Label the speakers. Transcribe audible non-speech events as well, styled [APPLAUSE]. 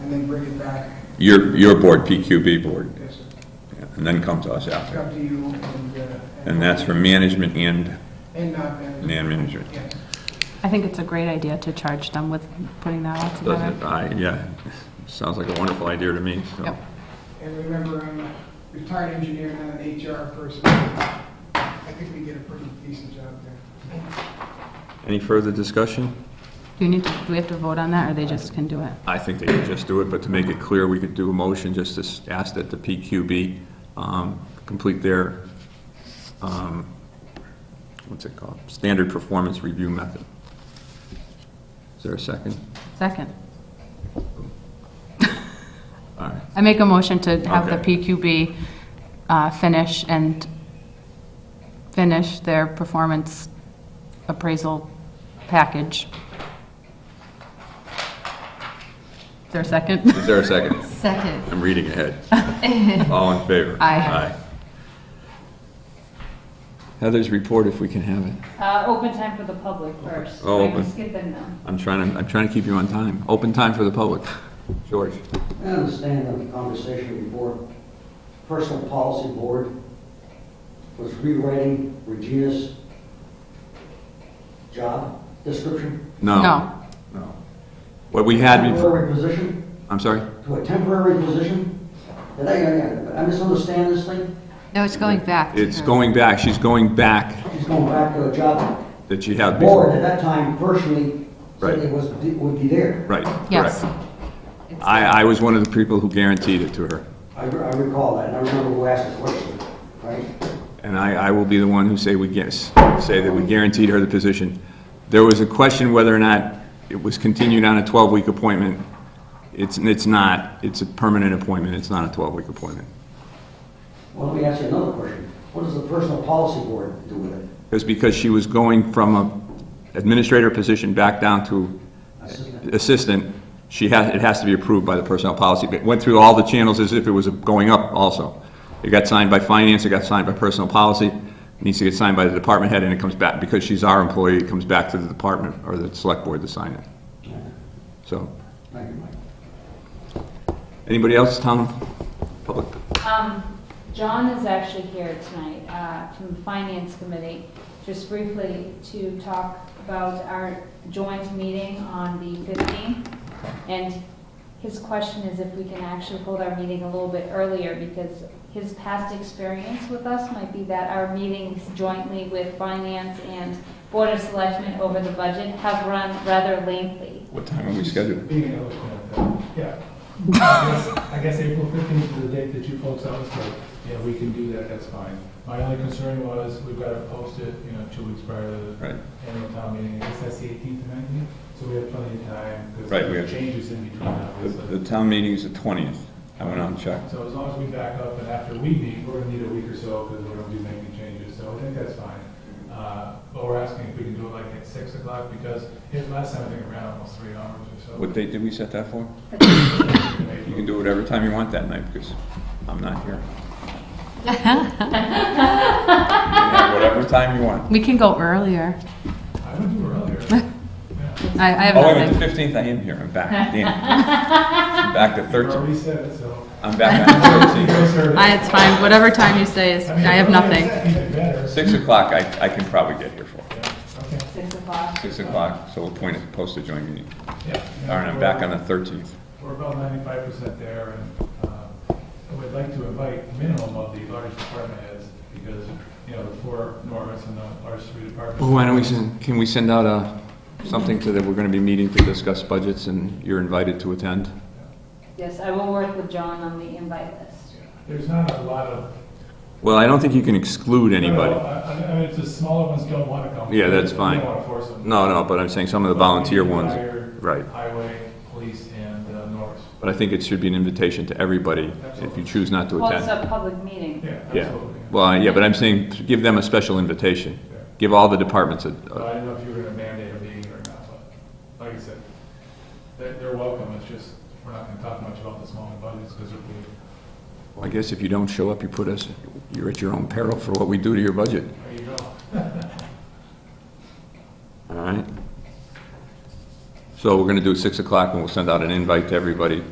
Speaker 1: and then bring it back.
Speaker 2: Your, your board, PQB board,
Speaker 1: Yes, sir.
Speaker 2: and then come to us
Speaker 1: It's
Speaker 2: after.
Speaker 1: up to you and. uh,
Speaker 2: And that's for management and
Speaker 1: And not management.
Speaker 2: man management.
Speaker 1: Yes.
Speaker 3: I think it's a great idea to charge them with putting that all
Speaker 2: Doesn't,
Speaker 3: together.
Speaker 2: I, yeah, sounds like a wonderful idea to me, so.
Speaker 3: Yep.
Speaker 1: And remember, I'm a retired engineer, not an HR person. I think we did a pretty decent job there.
Speaker 2: Any further discussion?
Speaker 3: Do you need, to- do we have to vote on that, or they just can do it?
Speaker 2: I think they could just do it, but to make it clear, we could do a motion just to s- ask that the PQB um, complete their, um, what's it called? Standard performance review method. Is there a second?
Speaker 3: Second.
Speaker 2: All right.
Speaker 3: I make a motion to have the
Speaker 2: Okay.
Speaker 3: PQB uh, finish and finish their performance appraisal package. Is there a second?
Speaker 2: Is there a second?
Speaker 3: Second. [LAUGHS]
Speaker 2: I'm reading ahead. All in favor?
Speaker 3: Aye.
Speaker 2: Heather's report, if we can have it.
Speaker 4: Uh, open time for the public first.
Speaker 2: Oh,
Speaker 4: I can
Speaker 2: open.
Speaker 4: skip them now.
Speaker 2: I'm trying to, I'm trying to keep you on time. Open time for the public. George?
Speaker 5: I understand that the conversation before, personal policy board was rewriting Regina's job description
Speaker 2: No.
Speaker 3: No.
Speaker 2: No. What we had before.
Speaker 5: temporary position,
Speaker 2: I'm sorry?
Speaker 5: to a temporary position. Did I, I- I misunderstand this thing?
Speaker 6: No, it's going back. to
Speaker 2: It's
Speaker 6: her.
Speaker 2: going back, she's going back
Speaker 5: She's going back to a job
Speaker 2: that she had
Speaker 5: board at
Speaker 2: Uh, before.
Speaker 5: that time personally
Speaker 2: Right.
Speaker 5: said it was, would be there.
Speaker 2: Right,
Speaker 3: Yes.
Speaker 2: correct. I, I was one of the people who guaranteed it to her.
Speaker 5: I re- I recall that, and I remember who asked the question, right?
Speaker 2: And I, I will be the one who say we guess, say that we guaranteed her the position. There was a question whether or not it was continued on a 12-week appointment. It's, it's not, it's a permanent appointment, it's not a 12-week appointment.
Speaker 5: Well, let me ask you another question. What does the personal policy board do with it?
Speaker 2: It was because she was going from a administrator position back down to
Speaker 5: Assistant.
Speaker 2: assistant. She has, it has to be approved by the personnel policy. It went through all the channels as if it was going up also. It got signed by finance, it got signed by personnel policy, it needs to get signed by the department head, and it comes back, because she's our employee, it comes back to the department or the select board to sign it. So,
Speaker 5: Thank you, Mike.
Speaker 2: anybody else, town, public?
Speaker 4: Um, John is actually here tonight, uh, from the Finance Committee, just briefly to talk about our joint meeting on the 15th. And his question is if we can actually hold our meeting a little bit earlier, because his past experience with us might be that our meetings jointly with Finance and Board of Selectmen over the budget have run rather lengthy.
Speaker 2: What time are we scheduled?
Speaker 7: Being an elephant, yeah. I guess- I guess April fifteenth is the date that you folks out, so, yeah, we can do that, that's fine. My only concern was, we've got to post it, you know, two weeks prior to
Speaker 2: Right.
Speaker 7: the annual town meeting, I guess that's the eighteenth and nineteenth, so we have plenty of time, because
Speaker 2: Right, we
Speaker 7: there are
Speaker 2: have-
Speaker 7: changes in between,
Speaker 2: The
Speaker 7: obviously.
Speaker 2: the town meeting is the 20th. I went out and checked.
Speaker 7: So as long as we back up, and after we meet, we're gonna need a week or so, because we're gonna be making changes, so I think that's fine. Uh, But we're asking if we can do it like at six o'clock, because it last time, I think, it ran almost three hours or so.
Speaker 2: What
Speaker 7: [COUGHS]
Speaker 2: date did we set that for?
Speaker 7: Maybe-
Speaker 2: You can do whatever time you want that night, because I'm not here. You can have Whatever time you want.
Speaker 3: We can go earlier.
Speaker 7: I would
Speaker 3: [LAUGHS]
Speaker 7: do earlier. Yeah.
Speaker 3: I, I have
Speaker 2: Oh, wait, the
Speaker 3: nothing.
Speaker 2: fifteenth, I am here, I'm back, damn. I'm Back to
Speaker 7: You already
Speaker 2: thirteen,
Speaker 7: said
Speaker 2: [LAUGHS]
Speaker 7: it, so.
Speaker 2: I'm back on thirteen.
Speaker 3: I, it's fine, whatever time you say is, I have nothing.
Speaker 7: Even better.
Speaker 2: Six o'clock, I, I can probably get here for,
Speaker 7: Okay.
Speaker 4: Six o'clock.
Speaker 2: six o'clock, so we'll point it, post a joint meeting.
Speaker 7: Yeah.
Speaker 2: All right, I'm back on the thirteenth.
Speaker 7: We're about ninety-five percent there, and uh, I would like to invite minimum of the large department heads, because, you know, the four Norris and the large three departments.
Speaker 2: Well, why don't we send, can we send out a, something to that we're gonna be meeting to discuss budgets, and you're invited to attend?
Speaker 4: Yes, I will work with John on the invite list.
Speaker 7: There's not a lot of.
Speaker 2: Well, I don't think you can exclude anybody.
Speaker 7: No, I I- I mean, it's the smaller ones don't want to come.
Speaker 2: Yeah, that's
Speaker 7: We
Speaker 2: fine.
Speaker 7: don't want to force them.
Speaker 2: No, no, but I'm saying some of the volunteer
Speaker 7: But we
Speaker 2: ones,
Speaker 7: hire
Speaker 2: right.
Speaker 7: Highway, police, and uh, Norris.
Speaker 2: But I think it should be an invitation to everybody if you choose not to
Speaker 4: Well, it's
Speaker 2: attend.
Speaker 4: a public meeting.
Speaker 7: Yeah,
Speaker 2: Yeah,
Speaker 7: absolutely.
Speaker 2: well, yeah, but I'm saying, give them a special invitation.
Speaker 7: Yeah.
Speaker 2: Give all the departments a,
Speaker 7: But
Speaker 2: a-
Speaker 7: I didn't know if you were gonna mandate a meeting or not, but, like I said, they're, they're welcome, it's just, we're not gonna talk much about the smaller budgets, because if we,
Speaker 2: well, I guess if you don't show up, you put us, you're at your own peril for what we do to your budget.
Speaker 7: there you go.
Speaker 2: All right? So we're gonna do it six o'clock, and we'll send out an invite to everybody